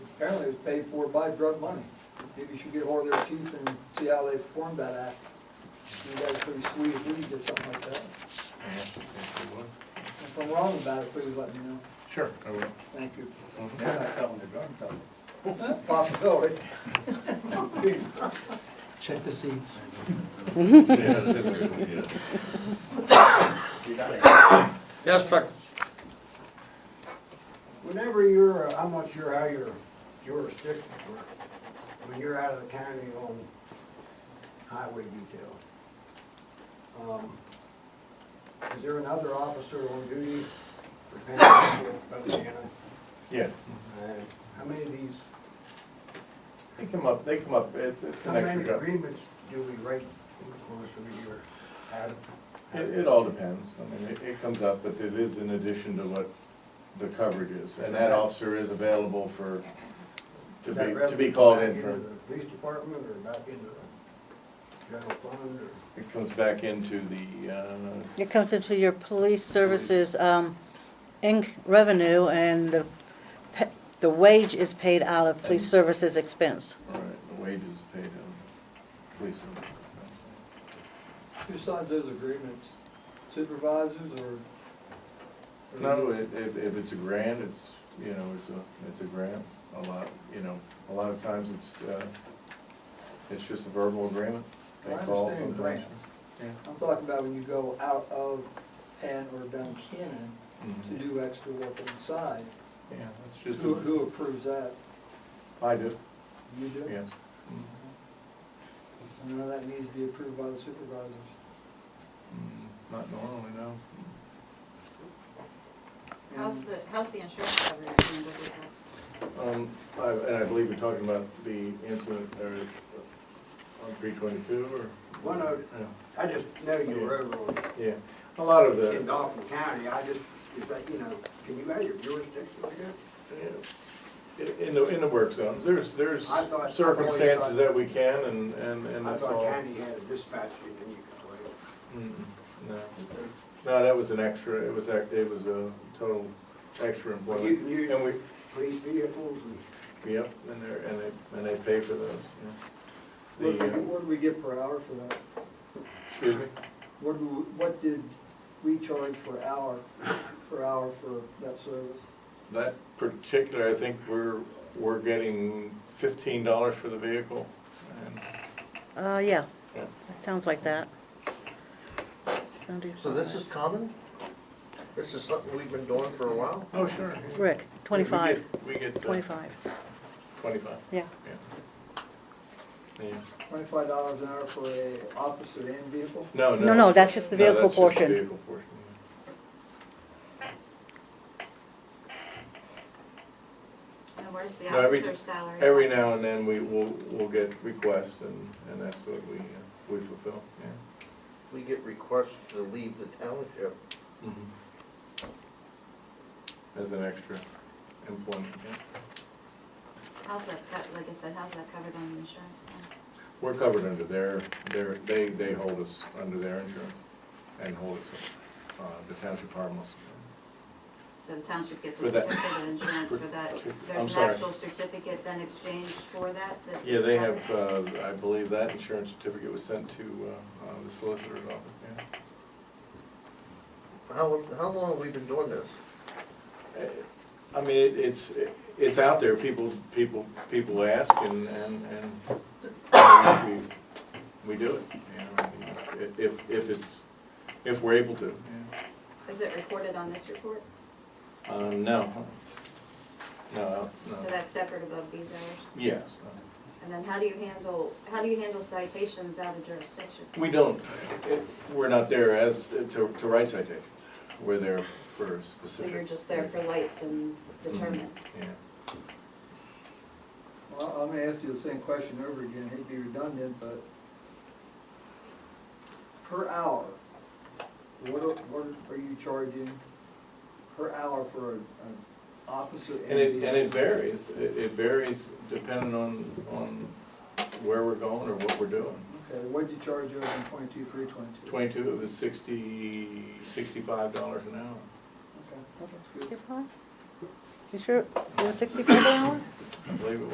apparently it was paid for by drug money. Maybe you should get hold of their chief and see how they performed that act. You guys are pretty sweet if we could get something like that. If I'm wrong about it, please let me know. Sure, I will. Thank you. They're not telling the drug company. Possibility. Check the seats. You gotta- Yes, Freckles. Whenever you're, uh, I'm not sure how your jurisdiction works, when you're out of the county on highway detail, um, is there another officer on duty for Panhandle, Buchanan? Yeah, And How many of these, they come up, they come up, it's, it's how an many extra job. agreements do we write in the course of a year? Out of- It, it all depends, I mean, it, it comes up, but it is in addition to what the coverage is, and that officer is available for, to Is be, that to be revenue called back in for, Into the police department or back into the general fund or? it comes back into the, uh, It comes into your police services, um, inc, revenue, and the, pe- the wage is paid out of police services expense. all right, the wages paid in police. Who signs those agreements? Supervisors or? or- No, it, if, if it's a grant, it's, you know, it's a, it's a grant, a lot, you know, a lot of times it's, uh, it's just a verbal agreement. I They call understand sometimes. grants. Yeah. I'm talking about when you go out of Penn or Duncannon to Mhm. do extra work on the side. Yeah, it's just, Who, a- who approves that? I do, You do? Mm-hmm. yes. I know that needs to be approved by the supervisors. Mm, Not normally, no. How's the, how's the insurance coverage handled with that? Um, I, and I believe you're talking about the incident there at- on three twenty-two or? Well, no, Yeah. I just know you wrote it on Yeah, a lot of in the, Dauphin County, I just, is that, you know, can you measure jurisdiction like that? yeah, in- in the, in the work zones, there's, there's I thought- I've always circumstances thought- that we can and, and, and I that's thought all. county had a dispatch unit and you could Mm, No, play. no, that was an extra, it was, act- it was a total extra Well, employment. you can use And we, police vehicles and. Yep, and they're, and they, and they pay for those, yeah. What The, do we- uh, what do we get per hour for that? excuse me? What do, what did we charge for hour, per hour for that service? That particular, I think we're, we're getting fifteen dollars for the vehicle. and- Uh, yeah, Yeah. sounds like that. So this is common? This is something we've been doing for a while? Oh, sure. Rick, twenty-five, We get, we get, uh, twenty-five, twenty-five, yeah. yeah. Yeah, Twenty-five dollars an hour for a officer and vehicle? no, no. No, no, that's just the No, vehicle that's just the portion. vehicle portion, And where's the No, every- officer's salary? yeah. Every now and then, we, we'll, we'll get requests, and, and that's what we, uh, we fulfill, yeah. We get requests to leave the township. Mm-hmm. As an extra employment, yeah. How's that, co- like I said, how's that covered on the insurance now? We're covered under their, their, they, they hold us under their insurance and hold us, uh, the township harmless. So the township gets a For that- certificate of insurance for that? I'm There's an sorry. actual certificate then exchanged for that? that Yeah, they it's have, covered? uh, I believe that insurance certificate was sent to, uh, uh, the solicitor's office, yeah. How, how long have we been doing this? Eh, I mean, it, it's, it's out there, people, people, people ask and, and, and we, we do it. you know, I mean, If, if it's, if we're able to, yeah. uh, Is it recorded on this report? Um, no. No, no. So that's separate above these hours? Yes. And then how do you handle, how do you handle citations out of jurisdiction? We don't, it- we're not there as, to, to write citations. We're there for So specific. Mm-hmm. you're just there for lights and determinant? Yeah. Well, I'm gonna ask you the same question over again, hate to be redundant, but per hour, what are, what are you charging per hour for a- an officer and And it, and it vehicle? varies. It, it varies depending on, on where we're going or what we're doing. Okay, what'd you charge over in twenty-two, three twenty-two? Twenty-two, it was sixty, sixty-five dollars an hour. Okay, that's good. You sure, you were sixty-five an hour?